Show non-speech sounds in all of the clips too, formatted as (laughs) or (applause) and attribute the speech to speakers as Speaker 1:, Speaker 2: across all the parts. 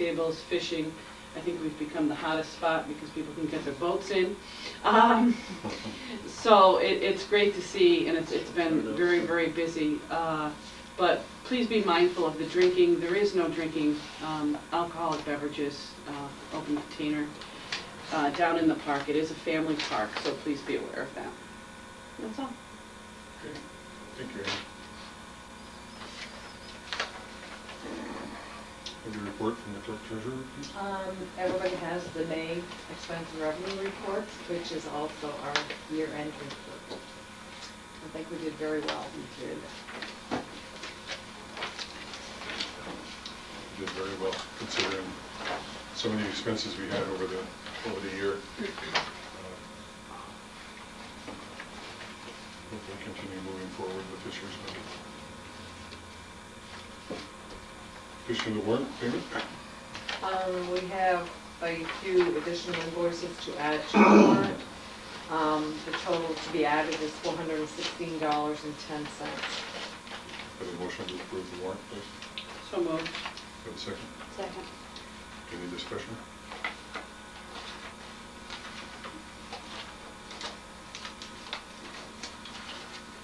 Speaker 1: tables, fishing. I think we've become the hottest spot because people can get their boats in.
Speaker 2: Uh-huh.
Speaker 1: Um, So it, it's great to see, and it's, it's been very, very busy. Uh, But please be mindful of the drinking. There is no drinking um, alcoholic beverages, uh, open container, uh, down in the park. It is a family park, so please be aware of that. That's all.
Speaker 3: Thank you, Ann. Have your report from the clerk treasurer, please?
Speaker 2: Um, everybody has the May expense and revenue report, which is also our year-end report. I think we did very well. We did.
Speaker 3: You Did very well, considering some of the expenses we had over the, over the year. Uh, Hopefully continue moving forward with this year's budget. Wish for the warrant payment?
Speaker 2: Um, we have a few additional invoices to add to the warrant. Um, the total to be added is four hundred and sixteen dollars and ten cents.
Speaker 3: Have a motion to approve the warrant, please.
Speaker 1: So moved.
Speaker 3: Have a second.
Speaker 2: Second.
Speaker 3: Any discussion?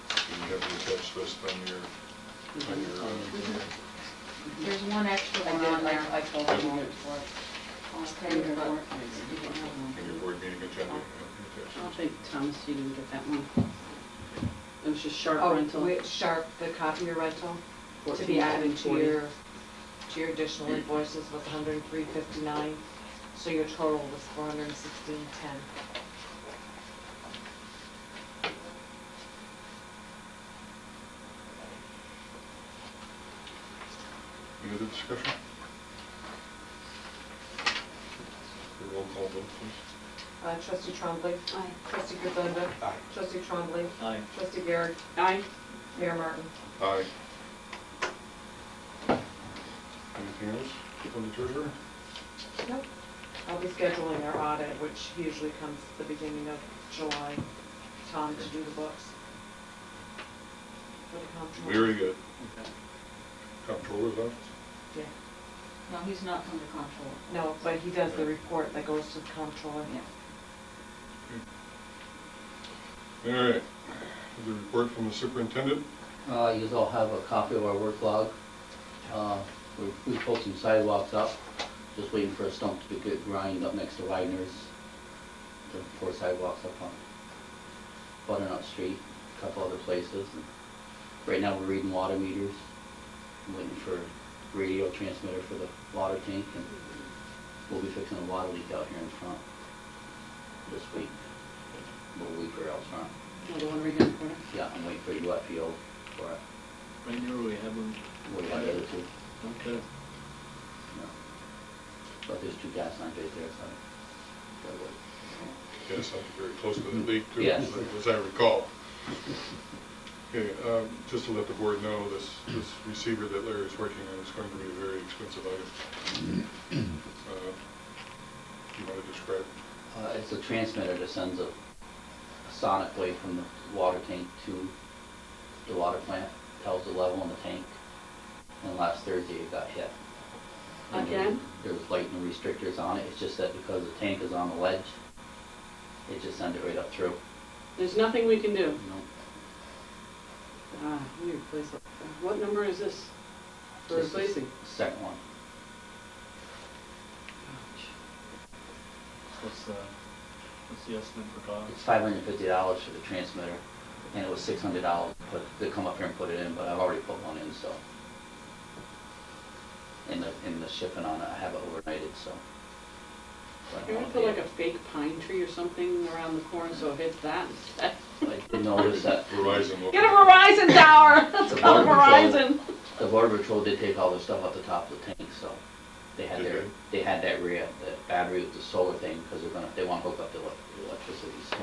Speaker 3: Do you have the attached list on your, on your, uh,
Speaker 4: There's one extra
Speaker 2: I
Speaker 4: one on
Speaker 2: did,
Speaker 4: there.
Speaker 2: I, I told them all before.
Speaker 4: Okay, but-
Speaker 3: on your board meeting agenda? yeah, attached
Speaker 1: I
Speaker 3: list.
Speaker 1: think, Thomas, you didn't get that one. It was just sharp
Speaker 2: Oh,
Speaker 1: rental.
Speaker 2: with Sharp, the copier rental, to be added to
Speaker 1: 1440.
Speaker 2: your, to your additional invoices was hundred and three fifty-nine, so your total was four hundred and sixteen ten.
Speaker 3: Any other discussion? A Roll call vote, please.
Speaker 2: Uh, trustee Trombley. Aye. Trustee Grisenda.
Speaker 5: Aye.
Speaker 2: Trustee Trombley.
Speaker 5: Aye.
Speaker 2: Trustee Garrett.
Speaker 1: Aye.
Speaker 2: Mayor Martin.
Speaker 3: Aye. Anything else from the treasurer?
Speaker 2: Nope. I'll be scheduling our audit, which usually comes the beginning of July, Tom to do the books. For the comptroller.
Speaker 3: Very good. Comptroller's office?
Speaker 2: Yeah,
Speaker 4: No, he's not under control.
Speaker 2: no, but he does the report that goes to the comptroller.
Speaker 4: Yeah.
Speaker 3: All right. The report from the superintendent?
Speaker 5: Uh, you all have a copy of our work log. Uh, we- we pulled some sidewalks up, just waiting for a stump to get grind up next to Wagner's. The four sidewalks up on Butternut Street, a couple other places. And Right now, we're reading water meters, waiting for radio transmitter for the water tank, and we'll be fixing a water leak out here in front this week. Little leaker out front.
Speaker 1: Another one right here in the corner.
Speaker 5: Yeah, I'm waiting for your wet field for it.
Speaker 6: Right now, we have them,
Speaker 5: What about the other two?
Speaker 6: okay,
Speaker 5: No. But there's two gas lines right there, so. that would-
Speaker 3: Yes, I'm very close to the leak, too,
Speaker 5: Mm-hmm. Yes.
Speaker 3: as I recall. Okay, um, just to let the board know, this, this receiver that Larry's working on is going to be a very expensive item. Uh, You want to describe?
Speaker 5: Uh, it's a transmitter that sends a a sonic wave from the water tank to the water plant, tells the level in the tank. And last Thursday it got hit. And there-
Speaker 1: Again?
Speaker 5: There was lightning restrictors on it, it's just that because the tank is on the ledge, it just sent it right up through,
Speaker 1: There's nothing we can do.
Speaker 5: you know?
Speaker 1: Ah, weird place. like that. What number is this? We're
Speaker 5: This is
Speaker 1: replacing.
Speaker 5: the Second one.
Speaker 6: what's, uh, what's the estimate for cost?
Speaker 5: It's five hundred and fifty dollars for the transmitter, and it was six hundred dollars, but they come up here and put it in, but I've already put one in, so. And the, and the shipping on it, I have it overnighted, so. So I
Speaker 1: You want to
Speaker 5: don't
Speaker 1: put
Speaker 5: know
Speaker 1: like
Speaker 5: if
Speaker 1: a fake pine tree or something around the corner so it hits that
Speaker 5: (laughs)
Speaker 1: instead?
Speaker 5: I did notice that
Speaker 3: Verizon. will-
Speaker 1: Get a Verizon tower! (laughs) Let's
Speaker 5: The
Speaker 1: call it
Speaker 5: Border
Speaker 1: Verizon!
Speaker 5: the border patrol did take all their stuff off the top of the tank, so. They had
Speaker 3: Did
Speaker 5: their,
Speaker 3: they?
Speaker 5: they had that rear, the battery with the solar thing, because they're gonna, they want to hook up the elec- the electricity, so.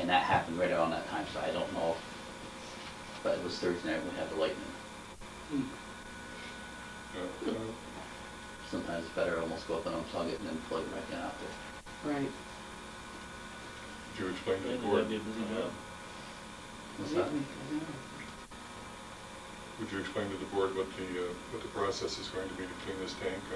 Speaker 5: And that happened right around that time, so I don't know, if- but it was Thursday night, we had the lightning. Hmm.
Speaker 3: Yeah, uh,
Speaker 5: sometimes it's better almost go up and unplug it and then plug it back in after.
Speaker 1: Right.
Speaker 3: Did you explain to the uh,
Speaker 6: That'd
Speaker 3: board?
Speaker 6: be a busy job.
Speaker 5: What's that?
Speaker 1: Wait, wait, I don't know.
Speaker 3: Would you explain to the board what the, uh, what the process is going to be to clean this tank